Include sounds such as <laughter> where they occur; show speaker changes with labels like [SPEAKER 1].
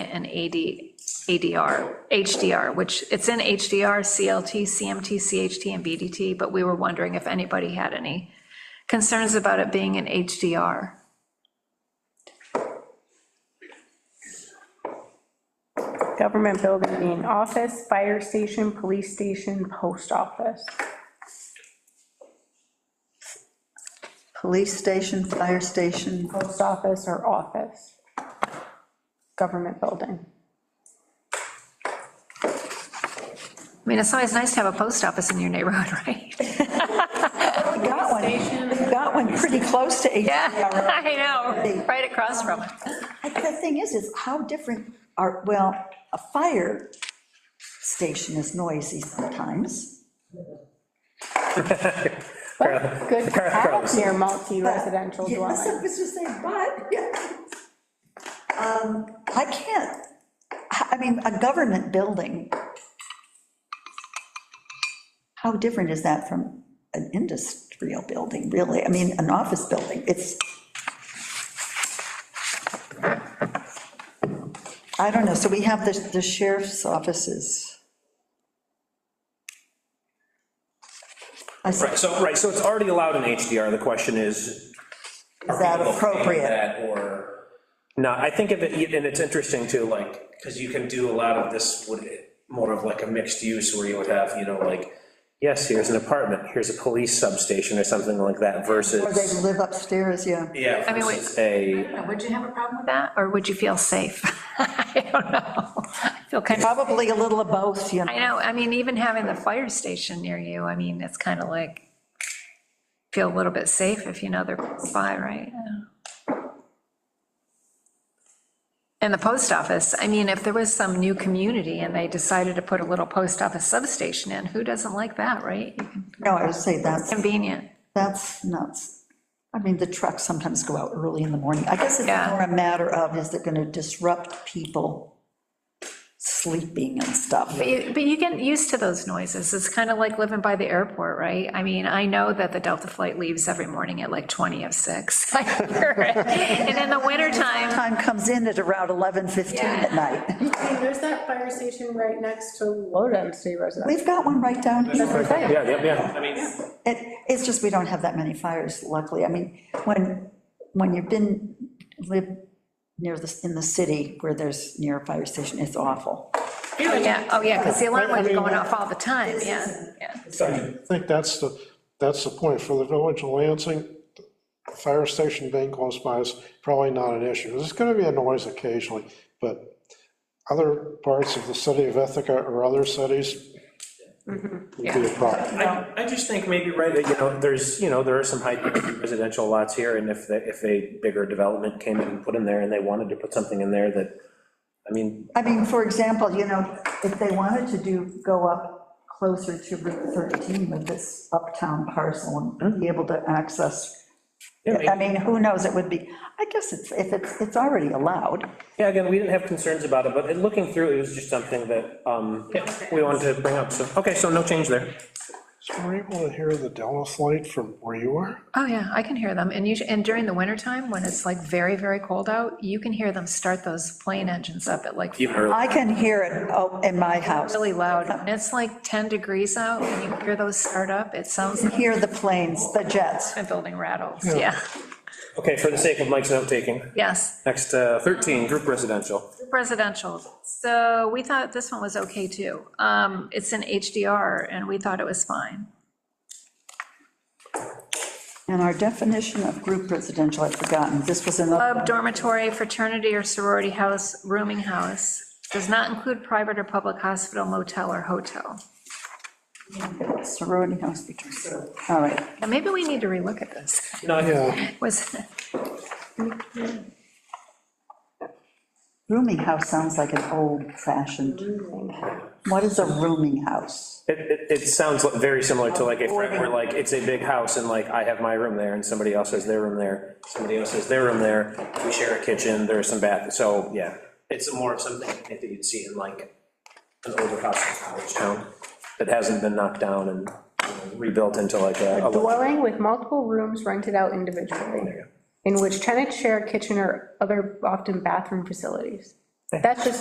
[SPEAKER 1] and AD, ADR, HDR, which it's in HDR, CLT, CMT, CHT, and BDT, but we were wondering if anybody had any concerns about it being in HDR.
[SPEAKER 2] Government building being office, fire station, police station, post office.
[SPEAKER 3] Police station, fire station,
[SPEAKER 2] Post office or office. Government building.
[SPEAKER 1] I mean, it's always nice to have a post office in your neighborhood, <laughs> right?
[SPEAKER 3] we got one, we got one pretty close to
[SPEAKER 1] Yeah,
[SPEAKER 3] HDR.
[SPEAKER 1] <laughs> I know, right across from it.
[SPEAKER 3] The thing is, is how different are, well, a fire station is noisy sometimes.
[SPEAKER 2] But good to have near multi-residential
[SPEAKER 3] Yes, I
[SPEAKER 2] dwelling.
[SPEAKER 3] was just saying, but, Um, I can't, I I mean, a government building, how different is that from an industrial building, really? I mean, an office building, it's, I don't know, so we have the the sheriff's offices. I said,
[SPEAKER 4] Right, so, right, so it's already allowed in HDR, the question is.
[SPEAKER 3] is that
[SPEAKER 4] looking at
[SPEAKER 3] appropriate?
[SPEAKER 4] that Or, no, I think of it, and it's interesting too, like, because you can do a lot of this, would, more of like a mixed use where you would have, you know, like, yes, here's an apartment, here's a police substation or something like that
[SPEAKER 3] Or they
[SPEAKER 4] versus,
[SPEAKER 3] live upstairs, yeah.
[SPEAKER 4] yeah.
[SPEAKER 1] I mean, wait.
[SPEAKER 4] versus A,
[SPEAKER 1] Would you have a problem with that, or would you feel safe? <laughs> I don't know. I feel kind of,
[SPEAKER 3] Probably a little of both, you know.
[SPEAKER 1] I know, I mean, even having the fire station near you, I mean, it's kind of like, feel a little bit safe if you know they're close by, right? Yeah. And the post office, I mean, if there was some new community and they decided to put a little post office substation in, who doesn't like that, right?
[SPEAKER 3] No, I would say that's,
[SPEAKER 1] Convenient.
[SPEAKER 3] that's nuts. I mean, the trucks sometimes go out early in the morning. I guess it's
[SPEAKER 1] Yeah.
[SPEAKER 3] more a matter of, is it gonna disrupt people sleeping and stuff?
[SPEAKER 1] But you- But you get used to those noises. It's kind of like living by the airport, right? I mean, I know that the Delta flight leaves every morning at like 20 of 6. <laughs> I hear it. And in the wintertime,
[SPEAKER 3] Time comes in at around 11:15 at night.
[SPEAKER 2] I mean, there's that fire station right next to low density residential.
[SPEAKER 3] We've got one right down here.
[SPEAKER 4] yeah, yeah, yeah. I mean,
[SPEAKER 3] It, it's just we don't have that many fires, luckily. I mean, when, when you've been, live near the, in the city where there's near a fire station, it's awful.
[SPEAKER 1] oh yeah, oh yeah, because the alarm would be going off all the time, yeah, yeah.
[SPEAKER 5] I think that's the, that's the point, for the village of Lansing, the fire station being close by is probably not an issue. There's gonna be a noise occasionally, but other parts of the city of Ithaca or other cities would be a problem.
[SPEAKER 4] I, I just think maybe, right, that, you know, there's, you know, there are some high residential lots here, and if, the- if a bigger development came in and put in there, and they wanted to put something in there that, I mean,
[SPEAKER 3] I mean, for example, you know, if they wanted to do, go up closer to Route 13 with this uptown parcel and be able to access,
[SPEAKER 4] Mm-hmm. yeah,
[SPEAKER 3] I
[SPEAKER 4] maybe-
[SPEAKER 3] mean, who knows, it would be, I guess it's, if it's, it's already allowed.
[SPEAKER 4] yeah, again, we didn't have concerns about it, but in looking through, it was just something that, um, yeah, we wanted to bring up, so, okay, so no change there.
[SPEAKER 5] So were you able to hear the Dallas light from where you are?
[SPEAKER 1] Oh yeah, I can hear them. And usually, and during the wintertime, when it's like very, very cold out, you can hear them start those plane engines up at like
[SPEAKER 4] Even earlier.
[SPEAKER 3] I can hear it oh, in my house,
[SPEAKER 1] really loud. And it's like 10 degrees out and you hear those start up. It sounds like
[SPEAKER 3] hear the planes, the jets.
[SPEAKER 1] a building rattles, yeah,
[SPEAKER 4] Okay, for the sake of Mike's note-taking,
[SPEAKER 1] yes.
[SPEAKER 4] next, uh, 13, group residential.
[SPEAKER 1] Residential, so we thought this one was okay too. Um, It's in HDR, and we thought it was fine.
[SPEAKER 3] And our definition of group residential, I've forgotten, this was another,
[SPEAKER 1] Club, dormitory, fraternity or sorority house, rooming house, does not include private or public hospital, motel, or hotel.
[SPEAKER 4] Uh,
[SPEAKER 3] sorority house fraternity. All right,
[SPEAKER 1] And maybe we need to relook at this. <laughs>
[SPEAKER 4] No, I-
[SPEAKER 5] Yeah,
[SPEAKER 1] Was,
[SPEAKER 3] rooming house sounds like an old-fashioned, what is a rooming house?
[SPEAKER 4] it, it, it sounds like- very similar to like, if we're like, it's a big house, and like, I have my room there, and somebody else has their room there, somebody else has their room there, we share a kitchen, there's some bath, so, yeah. It's more of something I think that you'd see in like an older house in college town that hasn't been knocked down and you know, rebuilt into like a. a-
[SPEAKER 2] Dwelling with multiple rooms rented out individually, in which tenants share a kitchen or other often bathroom facilities. That's just